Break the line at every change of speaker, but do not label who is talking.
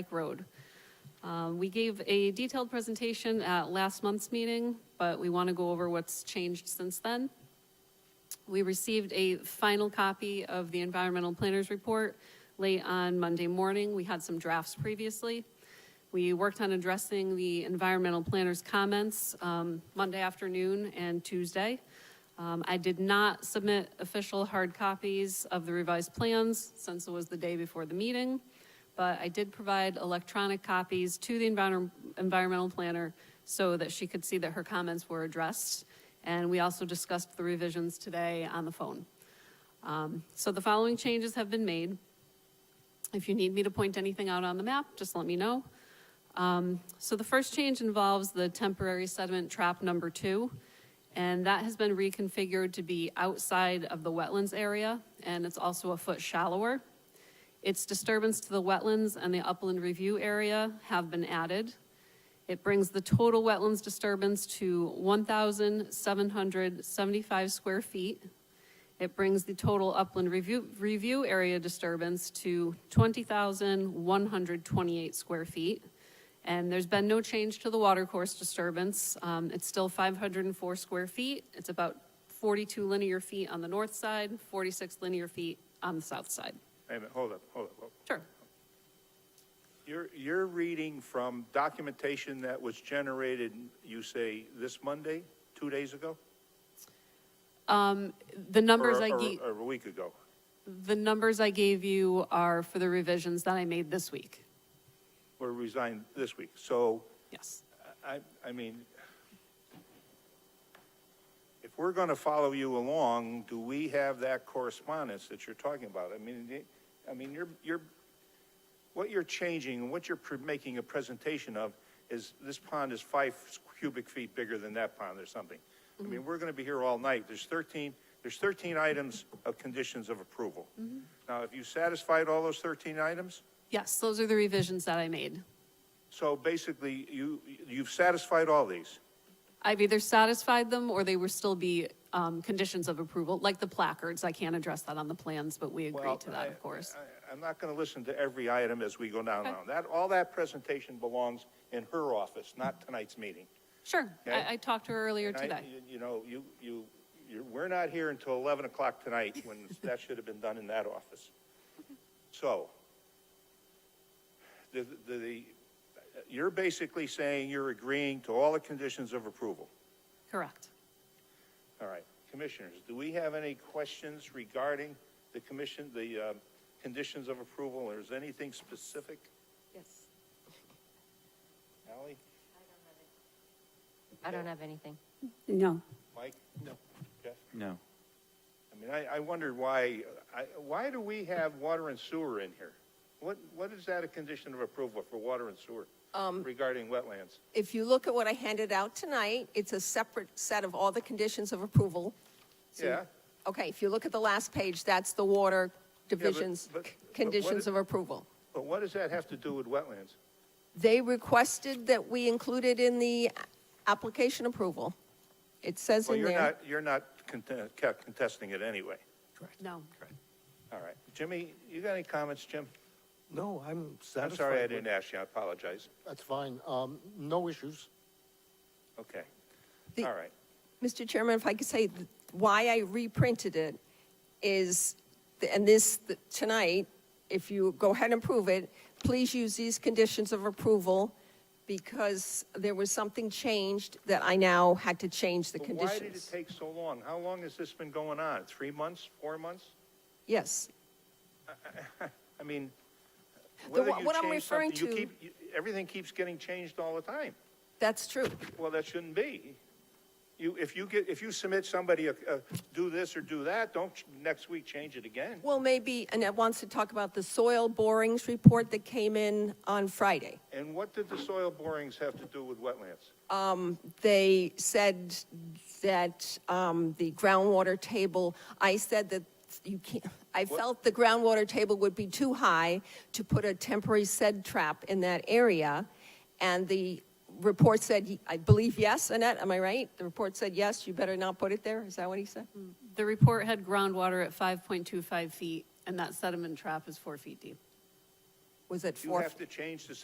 Lake Road. Um, We gave a detailed presentation at last month's meeting, but we want to go over what's changed since then. We received a final copy of the environmental planners report late on Monday morning. We had some drafts previously. We worked on addressing the environmental planners' comments um, Monday afternoon and Tuesday. Um, I did not submit official hard copies of the revised plans since it was the day before the meeting, but I did provide electronic copies to the environ- environmental planner so that she could see that her comments were addressed. And we also discussed the revisions today on the phone. Um, So the following changes have been made. If you need me to point anything out on the map, just let me know. Um, So the first change involves the temporary sediment trap number two, and that has been reconfigured to be outside of the wetlands area, and it's also a foot shallower. Its disturbance to the wetlands and the upland review area have been added. It brings the total wetlands disturbance to 1,775 square feet. It brings the total upland review, review area disturbance to 20,128 square feet. And there's been no change to the watercourse disturbance. Um, It's still 504 square feet. It's about 42 linear feet on the north side, 46 linear feet on the south side.
Wait a minute, hold up, hold up. hold up.
Sure.
You're, you're reading from documentation that was generated, you say, this Monday, two days ago?
The numbers
Or-
I
or-
gave,
Or a week ago?
the numbers I gave you are for the revisions that I made this week.
Or resigned this week? So,
Yes.
I, I mean, if we're going to follow you along, do we have that correspondence that you're talking about? I mean, it- I mean, you're, you're, what you're changing, and what you're pre- making a presentation of is this pond is five cubic feet bigger than that pond or something. I mean, we're going to be here all night. There's 13, there's 13 items of conditions of approval. Now, have you satisfied all those 13 items?
Yes, those are the revisions that I made.
So basically, you, you've satisfied all these?
I've either satisfied them or they will still be um, conditions of approval, like the placards. I can't address that on the plans, but we agree
Well,
to that,
I-
of course.
I- I'm not going to listen to every item as we go down
Okay.
now. That, all that presentation belongs in her office, not tonight's meeting.
Sure,
Okay.
I, I talked to her earlier
And I-
today.
you- You know, you, you, you're, we're not here until 11 o'clock tonight, when that should have been done in that office. So, the, the- the, you're basically saying you're agreeing to all the conditions of approval.
Correct.
All right, commissioners, do we have any questions regarding the commission, the uh, conditions of approval, or is anything specific?
Yes.
Ally,
I don't have anything.
No,
Mike? No. Jeff?
No.
I mean, I, I wondered why, I, why do we have water and sewer in here? What, what is that a condition of approval for water and sewer
Um,
regarding wetlands?
If you look at what I handed out tonight, it's a separate set of all the conditions of approval. So-
Yeah.
Okay, if you look at the last page, that's the water division's
but-
c-
but what
conditions
it-
of approval.
But what does that have to do with wetlands?
They requested that we include it in the a- application approval. It says
Well,
in
you're
there.
not, you're not conte- ca- contesting it anyway.
No.
All right. Jimmy, you got any comments, Jim?
No, I'm satisfied.
I'm sorry I
with-
didn't ask you, I apologize.
That's fine. Um, no issues.
Okay,
The-
all right.
Mr. Chairman, if I could say th- why I reprinted it is, th- and this, th- tonight, if you go ahead and approve it, please use these conditions of approval because there was something changed that I now had to change the
But Why did it
conditions.
take so long? How long has this been going on? Three months, four months?
Yes,
I mean,
The-
whether you
what
change
I'm
something,
referring
you
to-
keep, you- everything keeps getting changed all the time.
that's true.
Well, that shouldn't be. You, if you get, if you submit somebody, a- a do this or do that, don't ch- next week change it again.
Well, maybe Annette wants to talk about the soil borings report that came in on Friday.
And what did the soil borings have to do with wetlands?
they said that um, the groundwater table, I said that you can't, I felt the groundwater table would be too high to put a temporary sed trap in that area. And the report said, I believe, yes, Annette, am I right? The report said, yes, you better not put it there. Is that what he said?
Hmm.
The report had groundwater at 5.25 feet, and that sediment trap is four feet deep.
was at
You
four.
have to change the